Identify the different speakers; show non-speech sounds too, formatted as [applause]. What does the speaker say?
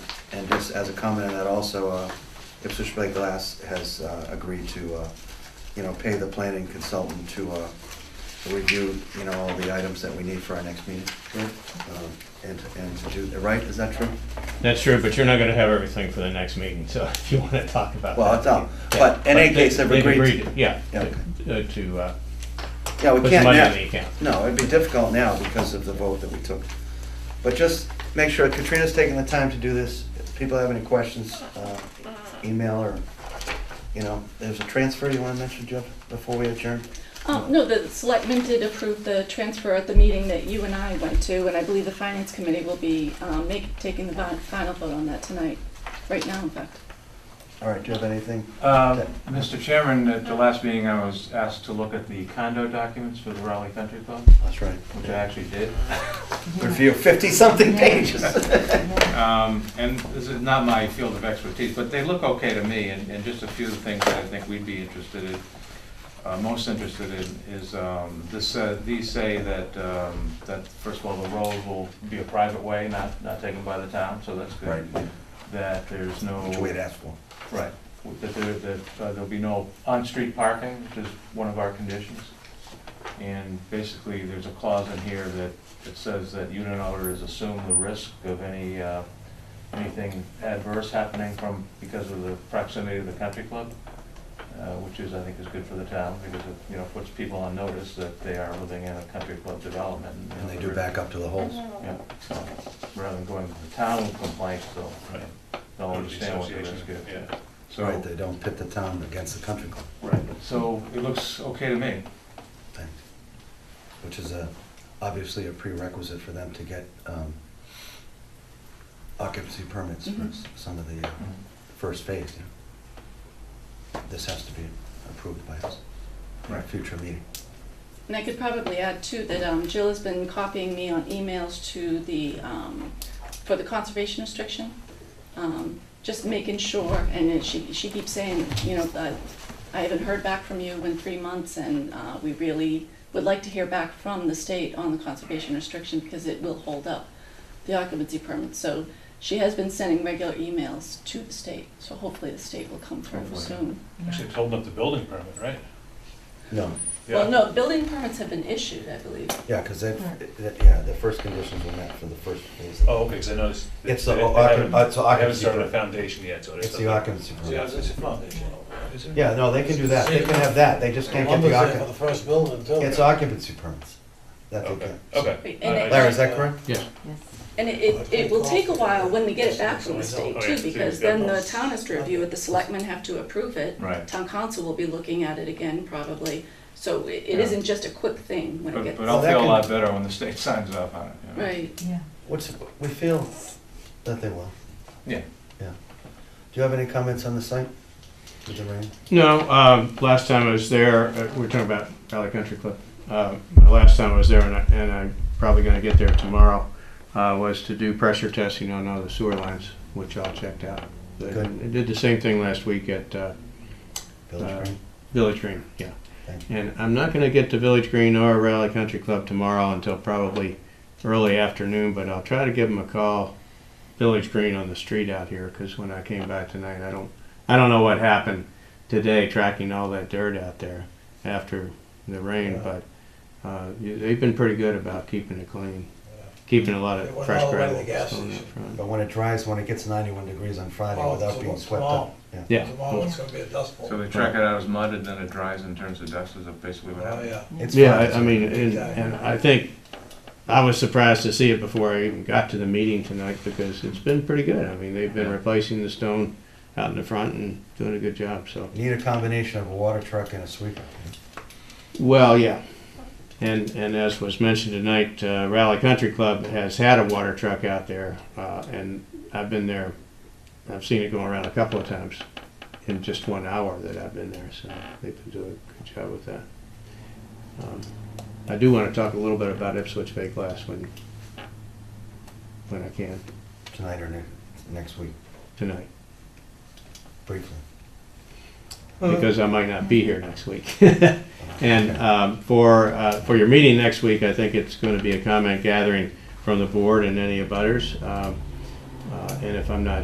Speaker 1: And just as a comment on that also, uh, Ipswich Bay Glass has uh, agreed to, uh, you know, pay the planning consultant to uh, to review, you know, all the items that we need for our next meeting. Um, And, and to do, right, is that true?
Speaker 2: That's true, but you're not gonna have everything for the next meeting, so [laughs] if you wanna talk about that.
Speaker 1: Well, it's all,
Speaker 2: yeah.
Speaker 1: but in any
Speaker 2: they-
Speaker 1: case, they've agreed. to-
Speaker 2: Yeah,
Speaker 1: Yeah,
Speaker 2: uh, to, uh,
Speaker 1: Yeah, we
Speaker 2: put some
Speaker 1: can't
Speaker 2: money
Speaker 1: now.
Speaker 2: in the account.
Speaker 1: No, it'd be difficult now because of the vote that we took. But just make sure Katrina's taking the time to do this. If people have any questions, uh, email or, you know, there's a transfer you want to mention, Jeff, before we adjourn?
Speaker 3: Um, no, the selectmen did approve the transfer at the meeting that you and I went to, and I believe the finance committee will be, um, make, taking the vi- final vote on that tonight, right now, in fact.
Speaker 1: All right, do you have anything?
Speaker 4: Uh, Mr. Chairman, at the last meeting, I was asked to look at the condo documents for the Raleigh Country Club,
Speaker 1: That's right.
Speaker 4: which I actually did.
Speaker 1: Review fifty-something pages.
Speaker 4: Um, And this is not my field of expertise, but they look okay to me, and and just a few things that I think we'd be interested in, uh, most interested in, is um, this, uh, these say that, um, that first of all, the road will be a private way, not, not taken by the town, so that's
Speaker 1: Right,
Speaker 4: good. That there's no.
Speaker 1: which we had asked for.
Speaker 4: Right, that there, that uh, there'll be no on-street parking, which is one of our conditions. And basically, there's a clause in here that, that says that unit owners assume the risk of any, uh, anything adverse happening from, because of the proximity to the country club, uh, which is, I think, is good for the town, because it, you know, puts people on notice that they are living in a country club development. you
Speaker 1: And they
Speaker 4: know,
Speaker 1: do
Speaker 4: they're-
Speaker 1: back up to the holes.
Speaker 4: Yeah, so, rather than going to the town with complaints, they'll,
Speaker 5: Right. Oh,
Speaker 4: they'll understand what the risk is.
Speaker 5: Yeah.
Speaker 4: So-
Speaker 1: Right, they don't pit the town against the country club,
Speaker 4: Right, so it looks okay to me.
Speaker 1: thing, which is a, obviously a prerequisite for them to get um, occupancy permits for
Speaker 3: Mhm.
Speaker 1: s- some of the uh, first phase, you know. This has to be approved by us in a
Speaker 4: Right.
Speaker 1: future meeting.
Speaker 3: And I could probably add too, that, um, Jill has been copying me on emails to the, um, for the conservation restriction. Um, just making sure, and then she, she keeps saying, you know, uh, I haven't heard back from you in three months, and, uh, we really would like to hear back from the state on the conservation restriction, because it will hold up the occupancy permit. So she has been sending regular emails to the state, so hopefully the state will come through
Speaker 4: Hopefully.
Speaker 3: soon.
Speaker 5: Actually, it's holding up the building permit, right?
Speaker 1: No,
Speaker 3: Well, no, building permits have been issued, I believe.
Speaker 1: yeah, because that, that- yeah, the first conditions were met for the first phase.
Speaker 5: Oh, okay, because I noticed. that
Speaker 1: It's the
Speaker 5: they-
Speaker 1: o-
Speaker 5: they
Speaker 1: occu-
Speaker 5: haven't-
Speaker 1: uh, it's the
Speaker 5: They haven't
Speaker 1: occupancy
Speaker 5: started a
Speaker 1: permit.
Speaker 5: foundation yet, so it is.
Speaker 1: It's the occupancy
Speaker 6: Yeah,
Speaker 1: permit.
Speaker 6: it's a foundation.
Speaker 1: Yeah, no, they can do that. They can have that. They just can't get the
Speaker 6: Lumber's there For
Speaker 1: occupancy.
Speaker 6: the first building, too.
Speaker 1: It's occupancy permits. That they
Speaker 5: Okay,
Speaker 1: can.
Speaker 5: okay.
Speaker 3: And it-
Speaker 5: I- I-
Speaker 1: Larry, is that correct?
Speaker 3: And it, it, it will take a while when they get it back from the state
Speaker 5: Oh, yeah,
Speaker 3: too,
Speaker 5: so you've
Speaker 3: because
Speaker 5: got
Speaker 3: then the
Speaker 6: those.
Speaker 3: town has to review it, the selectmen have to approve it.
Speaker 4: Right.
Speaker 3: Town council will be looking at it again probably, so it, it
Speaker 4: Yeah.
Speaker 3: isn't just a quick thing when it
Speaker 4: But,
Speaker 3: gets.
Speaker 4: but I'll
Speaker 1: Well, that
Speaker 4: feel a
Speaker 1: can-
Speaker 4: lot better when the state signs off on it. you know.
Speaker 3: Right,
Speaker 1: What's, we feel that they will.
Speaker 4: Yeah.
Speaker 1: Yeah. Do you have any comments on the site with the rain?
Speaker 2: No, um, last time I was there, uh, we were talking about Valley Country Club. Uh, the last time I was there, and, I, and I'm probably going to get there tomorrow, uh, was to do pressure testing on all the sewer lines, which all checked out. They,
Speaker 1: Good.
Speaker 2: they did the same thing last week at uh,
Speaker 1: Village
Speaker 2: Uh,
Speaker 1: Green?
Speaker 2: Village Green, yeah.
Speaker 1: Thank
Speaker 2: And I'm not going to get to Village Green or Raleigh Country Club tomorrow until probably early afternoon, but I'll try to give them a call, Village Green on the street out here, because when I came back tonight, I don't, I don't know what happened today tracking all that dirt out there after the rain,
Speaker 6: Yeah.
Speaker 2: but uh, you- they've been pretty good about keeping it clean, keeping a lot
Speaker 6: It
Speaker 2: of
Speaker 6: went
Speaker 2: fresh
Speaker 6: all the way to
Speaker 2: gravel.
Speaker 6: the gas
Speaker 2: on that
Speaker 6: station.
Speaker 2: front.
Speaker 1: But when it dries, when it gets ninety-one degrees on Friday
Speaker 6: Oh,
Speaker 1: without
Speaker 6: so
Speaker 1: being
Speaker 6: it's
Speaker 1: swept up.
Speaker 6: small.
Speaker 1: Yeah.
Speaker 2: Yeah.
Speaker 6: Tomorrow it's gonna be a dust bowl.
Speaker 4: So they track it out as mud and then it dries and turns to dust is basically what
Speaker 6: Oh,
Speaker 4: happens.
Speaker 6: yeah.
Speaker 1: It's
Speaker 2: Yeah,
Speaker 1: fine.
Speaker 2: I, I mean, and, and I think I was surprised to see it before I even got to the meeting tonight because it's been pretty good. I mean, they've been replacing the stone out in the front and doing a good job. So,
Speaker 1: Need a combination of a water truck and a sweeper.
Speaker 2: well, yeah. And, and as was mentioned tonight, uh, Raleigh Country Club has had a water truck out there, uh, and I've been there. I've seen it going around a couple of times in just one hour that I've been there, so they've been doing a good job with that. Um, I do want to talk a little bit about Ipswich Bay Glass when, when I can,
Speaker 1: Tonight or ne- next week,
Speaker 2: tonight,
Speaker 1: briefly.
Speaker 2: because I might not be here next week. [laughs] And um, for, uh, for your meeting next week, I think it's going to be a comment gathering from the board and any abutters. Um, uh, And if I'm not